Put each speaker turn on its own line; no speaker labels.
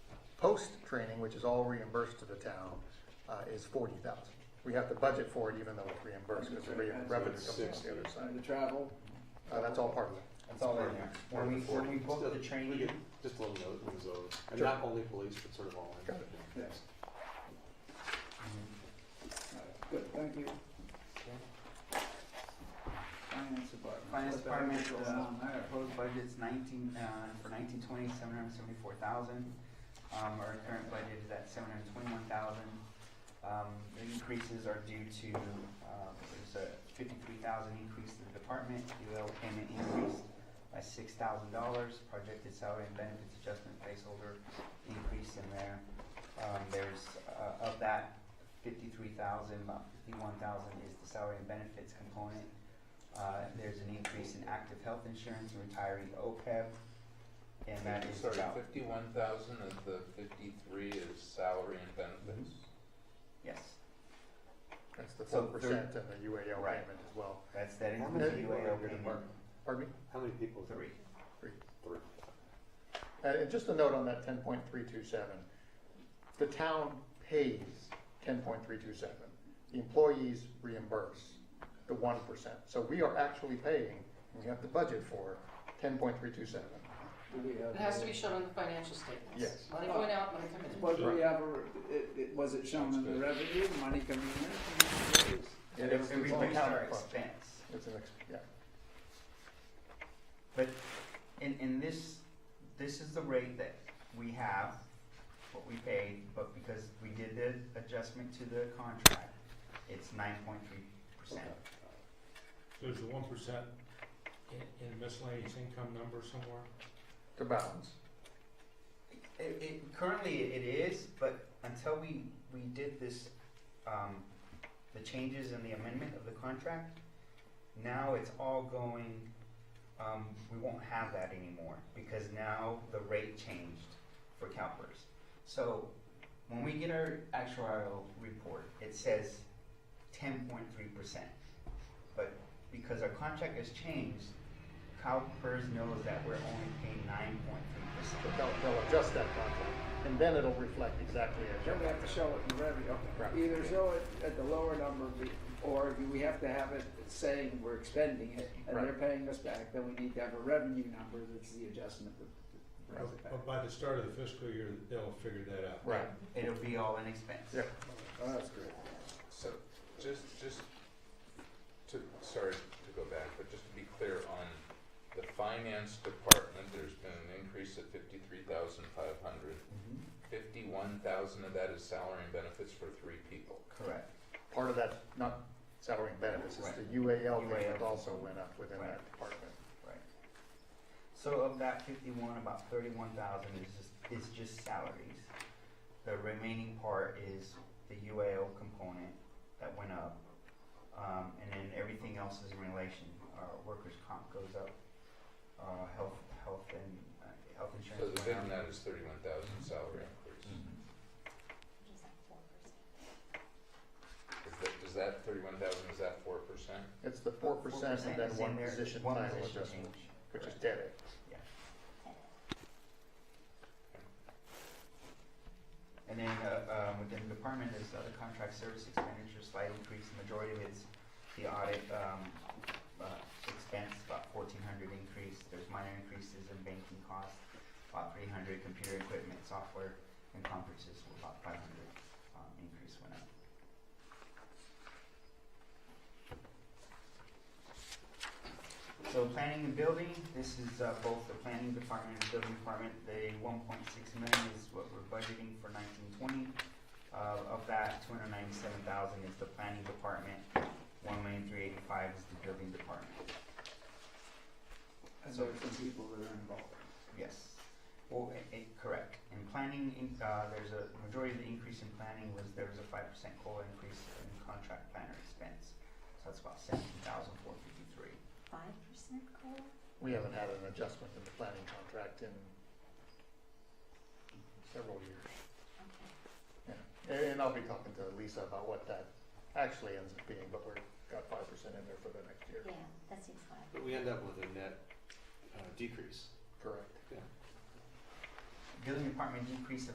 Post training, which is all reimbursed to the town, uh, is forty thousand. We have to budget for it even though it's reimbursed, because the re- revenue comes from the other
And the
side.
travel,
Uh, that's all part of it.
That's all in there. When we, when we book the
We
training,
get Just a little note when it's over, and
Sure.
not only police, but sort of all. in.
Got it.
yes. Alright, Good, thank you. Finance department.
finance
What the heck
department,
is going
uh,
on
our
there?
proposed budget's nineteen, uh, for nineteen twenty, seven hundred seventy-four thousand. Um, our current budget is at seven hundred twenty-one thousand. Um, the increases are due to, um, there's a fifty-three thousand increase in the department, UL payment increased by six thousand dollars, projected salary and benefits adjustment placeholder increase in there. Um, there's, uh, of that fifty-three thousand, about fifty-one thousand is the salary and benefits component. Uh, there's an increase in active health insurance and retiree OPEB, and that is
Sorry,
about,
fifty-one thousand of the fifty-three is salary and benefits?
yes,
That's the
So
four percent and the UAL
Right.
payment as well.
that's, that
How
includes
many
the
people are in
UAL
your
payment.
department?
Pardon me?
How many people?
E Three.
Three.
And Uh, and just a note on that ten point three two seven, the town pays ten point three two seven. The employees reimburse the one percent. So we are actually paying, and we have the budget for ten point three two seven.
Do we have?
It has to be shown on the financial statements.
Yes.
Money going out, money coming in.
But we have, a- it, it, was it shown in the revenue, money coming in?
It
It
is- it's an
replaced our
accounting function.
expense.
It's an, ex- yeah.
But in, in this, this is the rate that we have, what we paid, but because we did the adjustment to the contract, it's nine point three percent.
There's a one percent in, in miscellaneous income number somewhere?
The balance.
It, it, currently it is, but until we, we did this, um, the changes in the amendment of the contract, now it's all going, um, we won't have that anymore, because now the rate changed for CalPERS. So, when we get our actuarial report, it says ten point three percent. But because our contract has changed, CalPERS knows that we're only paying nine point three percent.
So They'll, they'll adjust that contract, and then it'll reflect exactly as
Then we
your.
have to show it in revenue,
Right.
okay, either show it at the lower number, be- or do we have to have it saying we're expending it, and they're paying us back, then we need to have a revenue number that's the adjustment that brings it back.
But by the start of the fiscal year, they'll figure that out.
Right.
It'll be all in expense.
Yeah.
Oh, that's great.
So, just, just to, sorry to go back, but just to be clear on the finance department, there's been an increase of fifty-three thousand five hundred.
Mm-hmm.
Fifty-one thousand of that is salary and benefits for three people.
Correct.
Part of that, not salary and benefits, it's
Right.
the UAL payment
UAL.
also went up within
Right.
that department.
Right. So of that fifty-one, about thirty-one thousand is just, is just salaries. The remaining part is the UAL component that went up. Um, and then everything else is in relation, uh, workers' comp goes up, uh, health, health and, uh, health
So
insurance
the big
went up.
net is thirty-one thousand salary increase.
Mm-hmm.
Is that, is that thirty-one thousand, is that four percent?
It's the four percent and then
Mm-hmm. is in
one
there,
position
one
title
position
adjustment,
change.
which is
Correct.
dead.
And then, uh, um, within the department is other contract service expenditure, slight increase, the majority of it's the audit, um, uh, expense, about fourteen hundred increase, there's minor increases in banking costs, about three hundred, computer equipment, software, and conferences, were about five hundred, um, increase went up. So planning and building, this is uh, both the planning department and building department, the one point six million is what we're budgeting for nineteen twenty. Uh, of that, two hundred ninety-seven thousand is the planning department, one million three eighty-five is the building department,
And there are some people that are involved.
yes. Well, i- i- correct, in planning, in, uh, there's a, majority of the increase in planning was, there was a five percent COLA increase in contract planner expense. So that's about seventeen thousand four fifty-three.
five percent COLA?
We haven't had an adjustment in the planning contract in several years.
Okay.
Yeah. And- And I'll be talking to Lisa about what that actually ends up being, but we're, got five percent in there for the next year.
Yeah, that seems high.
But we end up with a net uh, decrease.
Correct.
Building department decreased